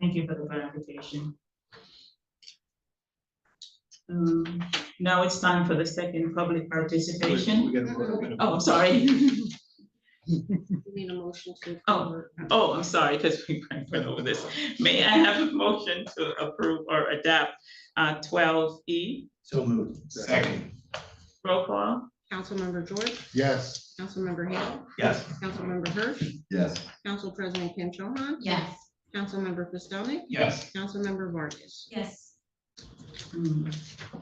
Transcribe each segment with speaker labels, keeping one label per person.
Speaker 1: Thank you for the clarification. Um, now it's time for the second public participation.
Speaker 2: We're gonna- we're gonna-
Speaker 1: Oh, I'm sorry.
Speaker 3: We Need a motion to.
Speaker 1: Oh. Oh, I'm sorry, because we went over this. May I have a motion to approve or adapt uh twelve E?
Speaker 2: So moved.
Speaker 4: Second.
Speaker 1: Roll call?
Speaker 3: Councilmember George,
Speaker 4: Yes.
Speaker 3: Councilmember Hale,
Speaker 2: Yes.
Speaker 3: Councilmember Hirsch,
Speaker 4: Yes.
Speaker 3: Council President Kim Cho Han,
Speaker 5: Yes.
Speaker 3: Councilmember Pistonik,
Speaker 4: Yes.
Speaker 3: Councilmember Vargas.
Speaker 5: Yes.
Speaker 1: Mm.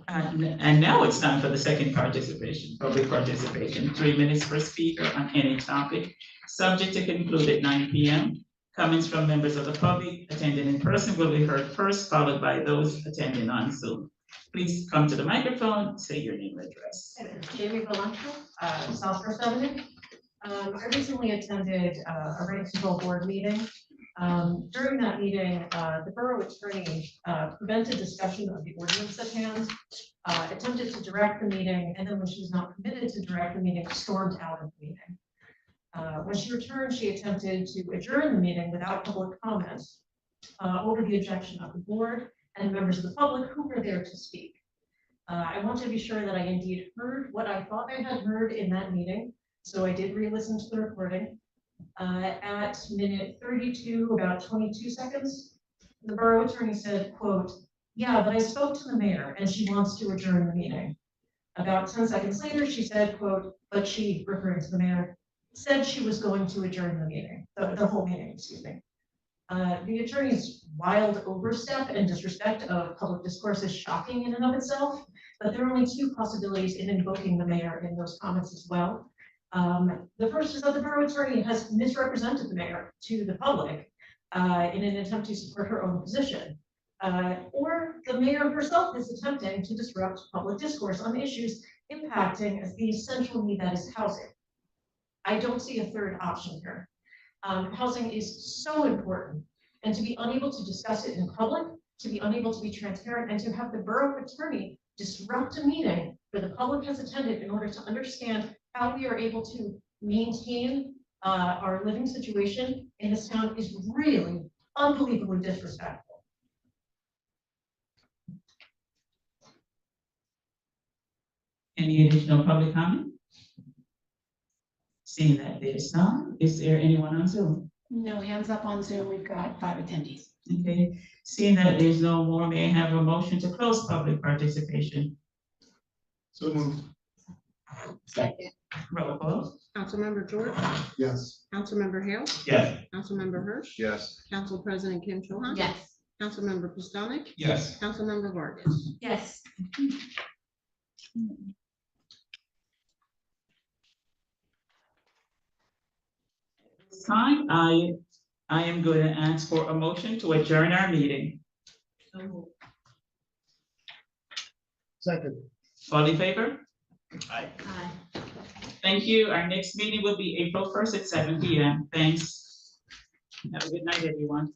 Speaker 1: And and now it's time for the second participation, public participation, three minutes per speaker on any topic, subject to conclude at nine P M. Comments from members of the public attending in person will be heard first, followed by those attending on Zoom. Please come to the microphone, say your name and address.
Speaker 5: Jamie Valentro, uh, Southwest Avenue. Um, I recently attended uh, a rent control board meeting. Um, during that meeting, uh, the borough attorney, uh, prevented discussion of the ordinance at hand. Uh, attempted to direct the meeting, and then when she was not permitted to direct the meeting, stormed out of the meeting. Uh, when she returned, she attempted to adjourn the meeting without public comment, uh, over the objection of the board and members of the public who were there to speak. Uh, I want to be sure that I indeed heard what I thought I had heard in that meeting, so I did re-listen to the recording. Uh, at minute thirty-two, about twenty-two seconds, the borough attorney said, quote, "Yeah, but I spoke to the mayor and she wants to adjourn the meeting." About ten seconds later, she said, quote, "But she," referring to the mayor, "said she was going to adjourn the meeting, the, the whole meeting, excuse me." Uh, the attorney's wild overstep and disrespect of public discourse is shocking in and of itself. But there are only two possibilities in invoking the mayor in those comments as well. Um, the first is that the borough attorney has misrepresented the mayor to the public uh, in an attempt to support her own position. Uh, or the mayor herself is attempting to disrupt public discourse on issues impacting the essential need that is housing. I don't see a third option here. Um, housing is so important and to be unable to discuss it in public, to be unable to be transparent and to have the borough attorney disrupt a meeting where the public has attended in order to understand how we are able to maintain uh, our living situation in this town is really unbelievably disrespectful.
Speaker 1: Any additional public comment? Seeing that there's none, is there anyone on Zoom?
Speaker 6: No, hands up on Zoom. We've got five attendees.
Speaker 1: Okay, seeing that there's no more, may I have a motion to close public participation?
Speaker 4: So moved.
Speaker 6: Second.
Speaker 1: Roll call.
Speaker 3: Councilmember George,
Speaker 4: Yes.
Speaker 3: Councilmember Hale,
Speaker 2: Yes.
Speaker 3: Councilmember Hirsch,
Speaker 4: Yes.
Speaker 3: Council President Kim Cho Han,
Speaker 5: Yes.
Speaker 3: Councilmember Pistonik,
Speaker 4: Yes.
Speaker 3: Councilmember Vargas.
Speaker 5: Yes.
Speaker 1: This time, I, I am going to ask for a motion to adjourn our meeting.
Speaker 4: Second.
Speaker 1: All in favor?
Speaker 2: Aye.
Speaker 5: Aye.
Speaker 1: Thank you. Our next meeting will be April first at seven P M. Thanks. Have a good night, everyone.